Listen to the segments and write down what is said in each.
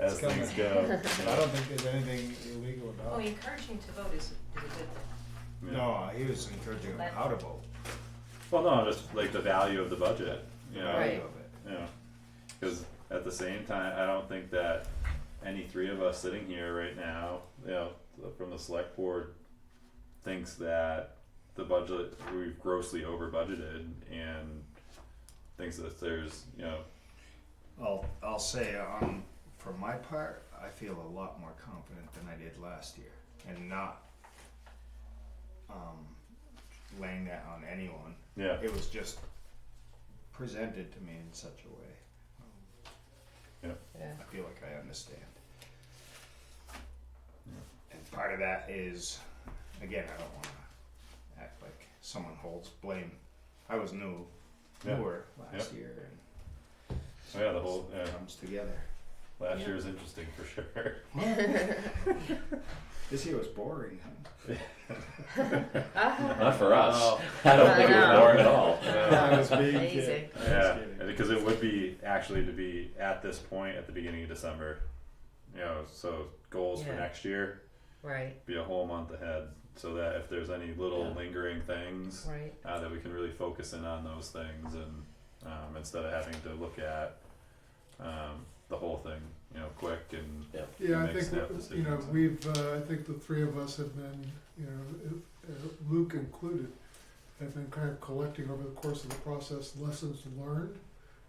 as It's coming. things go. But I don't think there's anything illegal Well, about Oh, it. encouraging to vote is, is a good thing. Yeah. No, he was encouraging them Let- how to vote. Well, no, just like the value of the budget, you know. Right. Yeah, because at the same time, I don't think that any three of us sitting here right now, you know, from the select board, thinks that the budget we've grossly over budgeted and thinks that there's you know I'll, I'll say, um, for my part, I feel a lot more confident than I did last year and not, um, laying that on anyone. yeah It was just presented to me in such a way. Yeah. I feel like I understand. And part of that is, again, I don't wanna act like someone holds blame. I was new, Yeah. newer last year oh, yeah the whole and yeah, it comes together. last Yeah. year was interesting for sure. This year was boring, Not for us. Oh. I don't I think it was know. more at all. Yeah. was being Amazing. kid- I was Yeah, kidding. because it would be actually to be at this point at the beginning of December, you know. So goals for Yeah. next year Right, be a whole month ahead, so that if there's any little Yeah. lingering things, right. uh, that we can really focus in on those things, and um, instead of having to look at um, the whole thing, you know, quick and Yeah, I make think, snap you know, decisions. we've, uh, I think the three of us have been, you know, uh, Luke included, have been kind of collecting over the course of the process lessons learned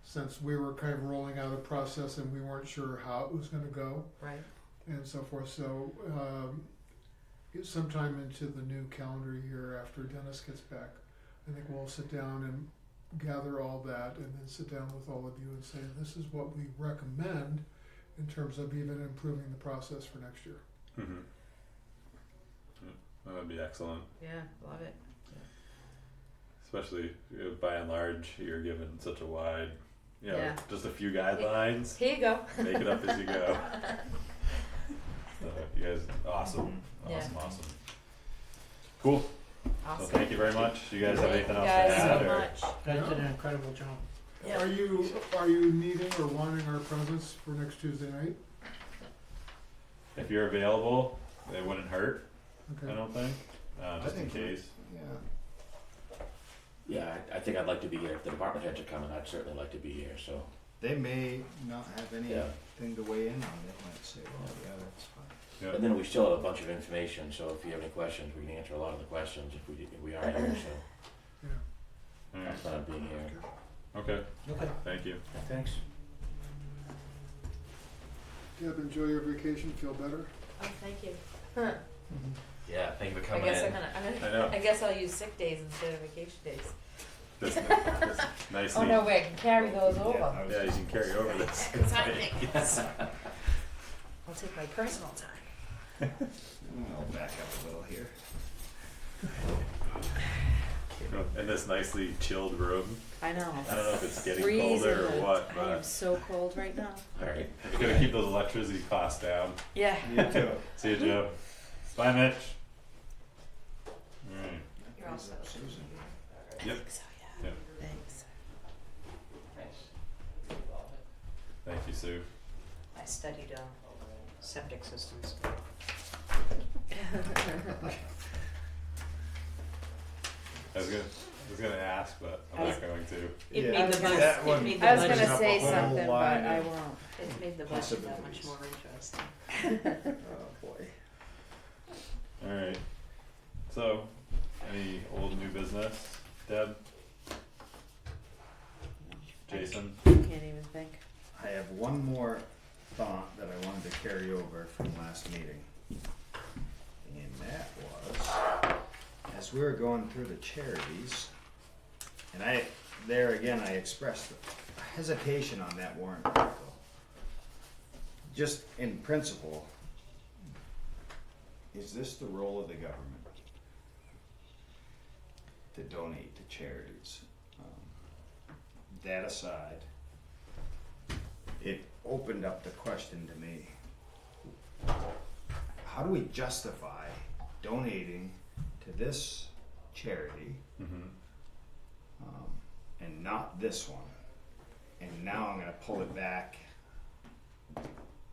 since we were kind of rolling out a process and we weren't sure how it was gonna go Right. and so forth. So, um, it- sometime into the new calendar year after Dennis gets back, I think we'll sit down and gather all that and then sit down with all of you and say, this is what we recommend in terms of even improving the process for next year. Mhm. Yeah, that would be excellent. Yeah, love it. especially you know, by and large you're given such a wide you know, Yeah. just a few guidelines Here you go. make it up as you go so you guys awesome Mm-hmm. Yeah. awesome awesome cool so Awesome. thank you very much you guys have Thank anything you else guys to add so or much. Guys did an incredible job. Yeah. Are you, are you needing or wanting our presence for next Tuesday night? if you're available it wouldn't hurt i Okay. don't think uh, I just think in we- case Yeah, Yeah, I, I think I'd like to be here. If the department heads are coming, I'd certainly like to be here. So they may not have Yeah. anything to weigh in on, they might say, well, yeah, that's fine. yeah. and then we still have a bunch of information. So if you have any questions, we can answer a lot of the questions if we if we are here. So Yeah. All right. that's not being here. okay Okay. thank you Thanks. Deb, enjoy your vacation, feel better. Oh, thank you. Huh. Mm-hmm. Yeah, thank you for I coming guess I'm in. gonna, I'm i gonna, know I guess I'll use sick days instead of vacation days. this, this nicely Oh, no way, I can carry those Yeah, over. I was yeah you just- can carry over this Good timing. I'll take my personal time. I'll back up a little here. in this nicely chilled room I know. I don't know if it's getting Freezing. colder or what, I am but so cold right now. All right. we're gonna keep those electricity costs down. Yeah. You too. See you, Joe. Bye, Mitch. All right. You're all set. Susan. I Yep. think so, yeah. Yep. Thanks. Thank you, Sue. I studied, uh, septic systems. I was gonna, I was gonna ask, but I I'm was- not going to. It Yeah, made the bus, that it one- made the I was budget, gonna say Up a whole something, but line I of- won't. it made the budget that much Possibilities. more interesting. Oh, boy. All right. So, any old new business, Deb, Jason? I Can't even think. I have one more thought that I wanted to carry over from last meeting. And that was, as we were going through the charities, and I, there again, I expressed hesitation on that warrant article. Just in principle, is this the role of the government? To donate to charities? Um, That aside, it opened up the question to me. How do we justify donating to this charity Mm-hmm. um, and not this one? And now I'm going to pull it back